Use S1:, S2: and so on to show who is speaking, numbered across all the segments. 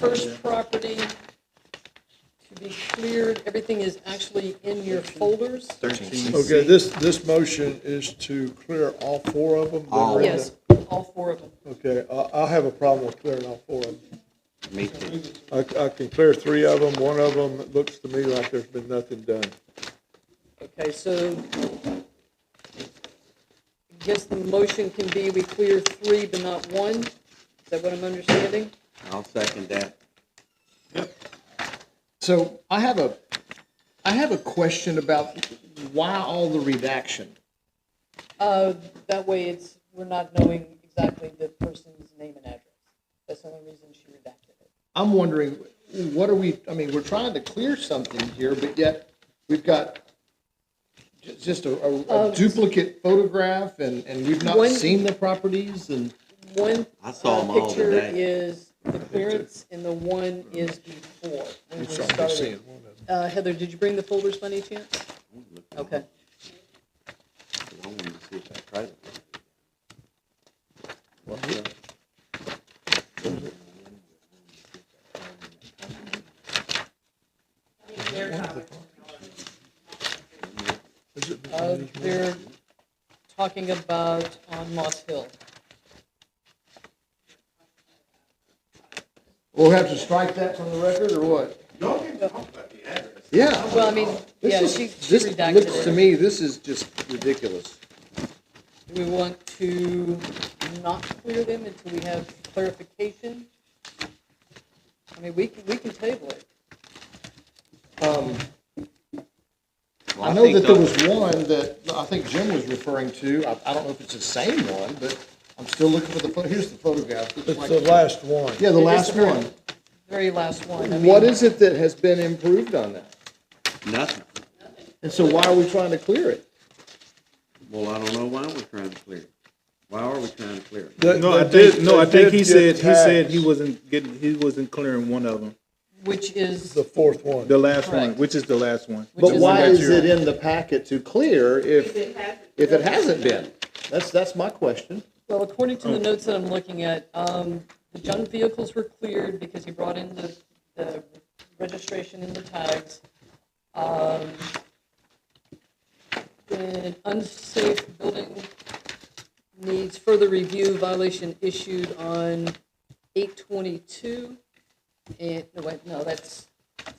S1: first property to be cleared, everything is actually in your folders.
S2: 13.
S3: Okay, this, this motion is to clear all four of them? that are in the-
S1: Yes, all four of them.
S3: Okay, I, I have a problem with clearing all four of them.
S2: Me too.
S3: I, I can clear three of them, one of them, it looks to me like there's been nothing done.
S1: Okay, so I guess the motion can be we clear three but not one? Is that what I'm understanding?
S2: I'll second that.
S4: So I have a, I have a question about why all the redaction?
S1: Uh, That way it's, we're not knowing exactly the person's name and address. That's the only reason she redacted it.
S4: I'm wondering, what are we, I mean, we're trying to clear something here, but yet we've got ju- just a- a a duplicate photograph and, and we've not
S1: Oh, One-
S4: seen the properties and,
S1: One
S2: I saw
S1: uh,
S2: 'em all
S1: picture
S2: today.
S1: is the clearance, and the one is before. when we started. Uh, Heather, did you bring the folders by any chance? Okay.
S2: I wanted to see if I tried it.
S1: Uh, They're talking about on Moss Hill.
S4: we'll have to strike that from the record or what? Yeah.
S1: Well, I mean, yeah,
S4: This
S1: she
S4: is,
S1: she
S4: this looks to
S1: redacted it.
S4: me, this is just ridiculous.
S1: Do we want to not clear them until we have clarification? I mean, we can, we can table it.
S4: Um,
S2: Well,
S4: I know
S2: think
S4: that there
S2: the-
S4: was one that I think Jim was referring to. I, I don't know if it's the same one, but I'm still looking for the, pho- here's the photograph. It's
S3: It's
S4: like-
S3: the last one.
S4: Yeah, the
S1: It is
S4: last
S1: the
S4: one.
S1: Very last one. I
S4: What
S1: mean,
S4: is it that has been improved on that?
S2: Nothing.
S4: And so why are we trying to clear it?
S2: Well, I don't know why we're trying to clear it. Why are we trying to clear it?
S3: They-
S5: No, I
S3: they
S5: did, no, I
S3: they
S5: think he
S3: did
S5: said,
S3: get
S5: he said he
S3: taxed,
S5: wasn't getting, he wasn't clearing one of them,
S1: Which is,
S3: The fourth one.
S5: the last one,
S1: Correct.
S5: which is the last one.
S1: Which
S4: But
S1: is-
S4: why
S5: That
S4: is
S5: you're-
S4: it in the packet to clear if, if it hasn't been? That's, that's my question.
S1: well, according to the notes that I'm looking at, um, the junk vehicles were cleared because he brought in the, the registration and the tags. Um, An unsafe building needs further review violation issued on eight twenty-two. And, no, wait, no, that's,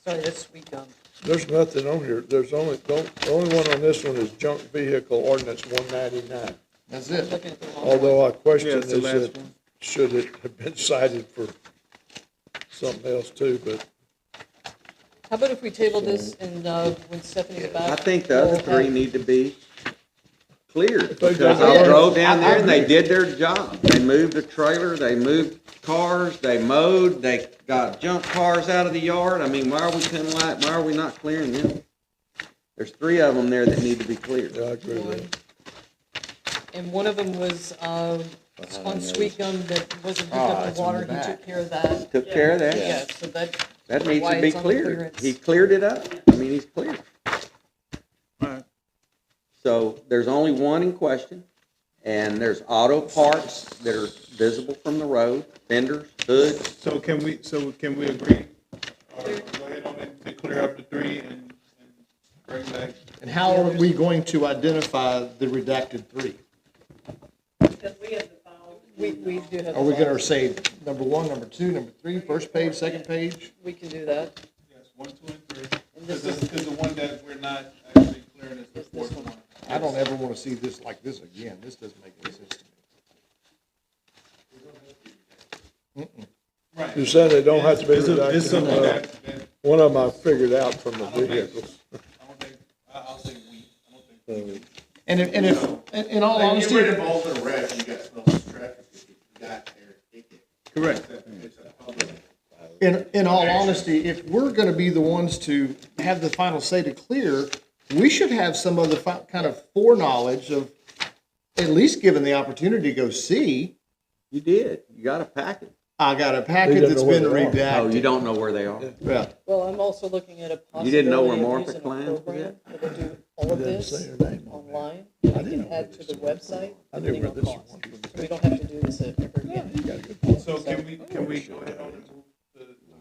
S1: sorry, that's um, sweet gum.
S3: There's nothing on here, there's only, don't- the only one on this one is junk vehicle ordinance one ninety-nine.
S4: That's
S1: I'm
S4: it.
S1: Looking at the wrong.
S3: Although I
S5: Yeah,
S3: question
S5: it's
S3: is
S5: the last
S3: it,
S5: one.
S3: should it have been cited for something else too, but
S1: How about if we table this and, uh, when Stephanie's back?
S2: I think the other
S1: we'll
S2: three
S1: have-
S2: need to be cleared.
S3: They
S2: Because
S3: got
S2: I
S3: it.
S2: drove down there and they did their job. They moved the trailer, they moved cars, they mowed, they got junk cars out of the yard. I mean, why are we coming like, why are we not clearing them? There's three of them there that need to be cleared.
S3: yeah, I agree with
S1: One.
S3: that.
S1: And one of them was, um, on sweet gum that wasn't hooked
S4: Ah,
S1: up
S4: it's
S1: to
S4: in
S1: water,
S4: the
S1: he took
S4: back.
S1: care of that.
S2: Took care of that.
S1: Yeah, so that.
S2: That needs
S1: why
S2: to be
S1: it's on
S2: cleared.
S1: clearance.
S2: He cleared it up. I mean, he's cleared.
S5: Alright.
S2: So there's only one in question, and there's auto parts that are visible from the road, fenders, hoods.
S5: So can we, so can we agree, or go ahead on it to clear up the three and, and bring back?
S4: And how are we going to identify the redacted three?
S1: We, we do have.
S4: Are we
S1: the
S4: gonna
S1: files.
S4: say number one, number two, number three, first page, second page?
S1: We can do that.
S5: Yes, one, two, and three.
S1: And
S5: Because
S1: this
S5: this
S1: is,
S5: is the one that we're not actually clearing, is the fourth one.
S4: I don't ever wanna see this like this again. This doesn't make any sense to me.
S5: Right.
S3: You're saying they don't have to be
S5: It's a- It's
S3: redacted?
S5: something
S3: Uh,
S5: that, that,
S3: One of them I figured out from the vehicles.
S5: I don't think, I- I'll say we, I don't think.
S4: And if, and if, in- in all
S6: Like,
S4: honesty.
S6: get rid of all the rest, you got so much traffic, if you got there, it could
S4: Correct.
S6: it's a public.
S4: In, in all honesty, if we're gonna be the ones to have the final say to clear, we should have some of the fi- kind of foreknowledge of at least given the opportunity to go see,
S2: You did. You got a packet.
S4: I got a packet
S3: don't
S4: that's
S3: know where
S4: been
S3: they
S2: Oh, you
S4: redacted.
S2: don't know where they are.
S4: Yeah.
S1: well, I'm also looking at a possibility.
S2: You didn't know where
S1: of
S2: Martha
S1: using a
S2: Klein was
S1: program
S2: at?
S1: That'll do all of
S3: didn't say
S1: this
S3: her name on
S1: online. I can
S3: know
S1: add to the website.
S3: I knew
S1: depending
S3: where
S1: on
S3: this
S1: cost.
S3: one
S1: So we don't have to do this ever again.
S5: So can we, can we go ahead on it?